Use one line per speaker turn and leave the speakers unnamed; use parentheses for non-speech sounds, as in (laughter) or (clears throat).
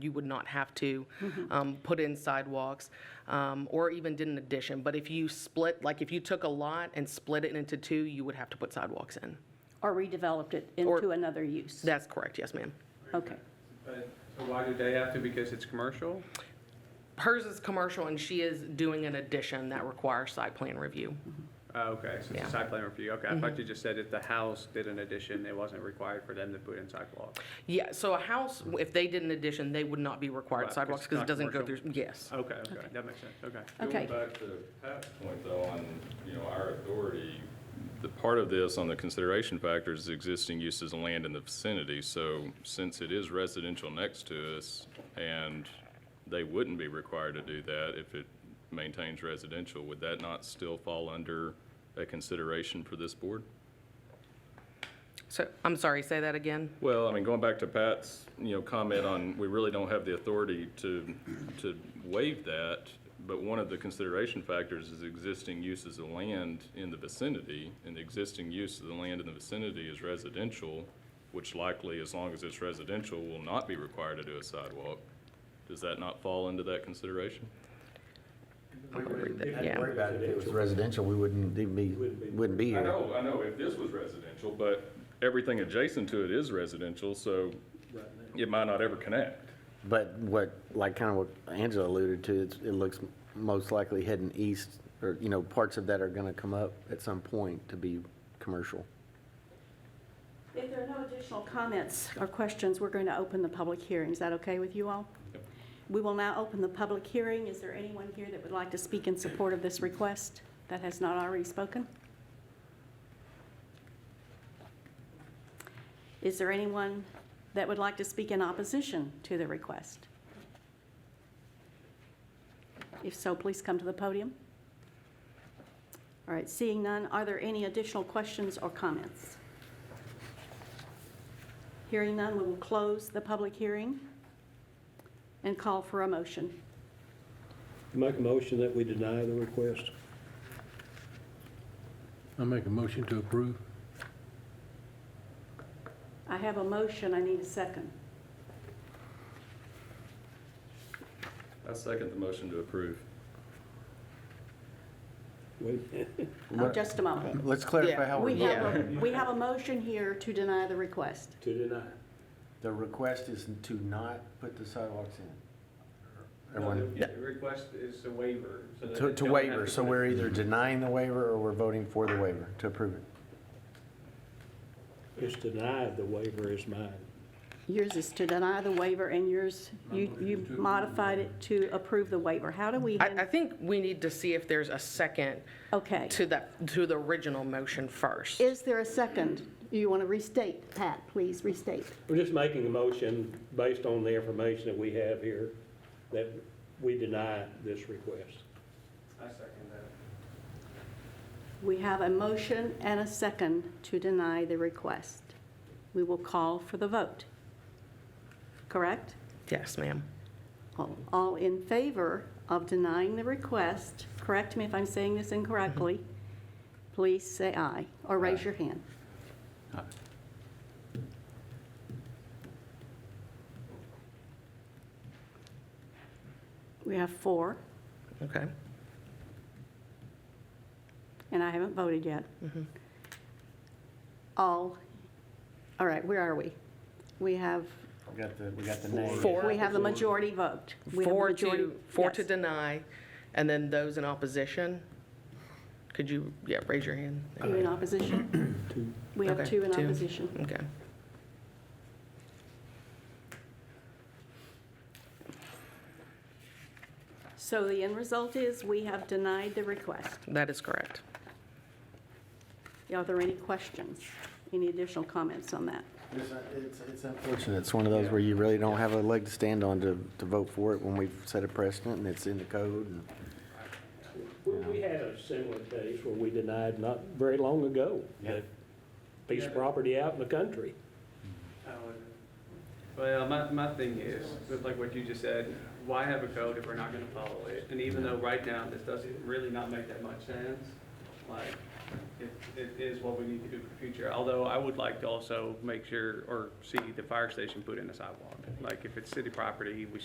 you would not have to um, put in sidewalks um, or even did an addition. But if you split, like if you took a lot and split it into two, you would have to put sidewalks in.
Or redeveloped it into another use?
That's correct, yes, ma'am.
Okay.
But, so why do they have to? Because it's commercial?
Hers is commercial and she is doing an addition that requires site plan review.
Oh, okay, so it's
Yeah.
a side plan review. Okay, I thought you just said if the house did an addition, it wasn't required for them to put in sidewalks.
Yeah, so a house, if they did an addition, they would not be
Right,
required
'cause
sidewalks
it's
because it
not
doesn't go through,
commercial.
yes.
Okay, okay, that makes sense, okay.
Okay.
Going back to Pat's point though, on, you know, our authority, the part of this on the consideration factor is existing uses of land in the vicinity. So since it is residential next to us and they wouldn't be required to do that if it maintains residential, would that not still fall under a consideration for this board?
So, I'm sorry, say that again?
Well, I mean, going back to Pat's, you know, comment on, we really don't have the authority to, to waive that, but one of the consideration factors is existing uses of land in the vicinity, and the existing use of the land in the vicinity is residential, which likely, as long as it's residential, will not be required to do a sidewalk. Does that not fall into that consideration?
I'm gonna read that,
I'd
yeah.
worry about it if it was residential, we wouldn't even be, wouldn't be
I
here.
know, I know, if this was residential, but everything adjacent to it is residential, so it might not ever connect.
But what, like kind of what Angela alluded to, it's- it looks most likely heading east, or, you know, parts of that are going to come up at some point to be commercial.
If there are no additional comments or questions, we're going to open the public hearing. Is that okay with you all? We will now open the public hearing. Is there anyone here that would like to speak in support of this request that has not already spoken? Is there anyone that would like to speak in opposition to the request? If so, please come to the podium. All right, seeing none, are there any additional questions or comments? Hearing none, we will close the public hearing and call for a motion.
Make a motion that we deny the request.
I make a motion to approve.
I have a motion, I need a second.
I second the motion to approve.
Wait,
Oh, just a moment.
Let's clarify
Yeah.
how we're
We
voting.
have, a- we have a motion here to deny the request.
To deny.
The request is to not put the sidewalks in.
No,
Everyone-
The the request is a waiver. so that
To,
they
to
don't have
waiver, so
put it-
we're either denying the waiver or we're voting for the waiver to approve it.
It's denied, the waiver is mine.
Yours is to deny the waiver, and yours, you, you modified it to approve the waiver. How do we,
I, I
hand-
think we need to see if there's a second
okay.
to that, to the original motion first.
Is there a second? You want to restate, Pat, please restate.
We're just making a motion based on the information that we have here, that we deny this request.
I second that.
We have a motion and a second to deny the request. We will call for the vote. Correct?
Yes, ma'am.
All- All in favor of denying the request, correct me if I'm saying this incorrectly,
Mm-hmm.
please say aye or raise your hand. We have four,
Okay.
and I haven't voted yet.
Mm-hmm.
All, all right, where are we? We have,
We got the, we got the name.
Four.
we have the majority vote. We have the
Four
majority-
to, four to
yes.
deny, and then those in opposition? Could you, yeah, raise your hand.
You in opposition? We have
Okay,
two
(clears throat)
in
two.
opposition.
Okay.
So the end result is we have denied the request.
That is correct.
Are there any questions? Any additional comments on that?
It's- It's it's unfortunate. It's one of those where you really don't have a leg to stand on to, to vote for it when we've set a precedent and it's in the code and.
We we had a similar case where we denied not very long ago, a piece of property out in the country.
I would- Well, my, my thing is, with like what you just said, why have a code if we're not gonna follow it? And even though right now, this doesn't really not make that much sense, like, it, it is what we need to do for future. Although I would like to also make sure, or see the fire station put in a sidewalk. Like if it's city property, we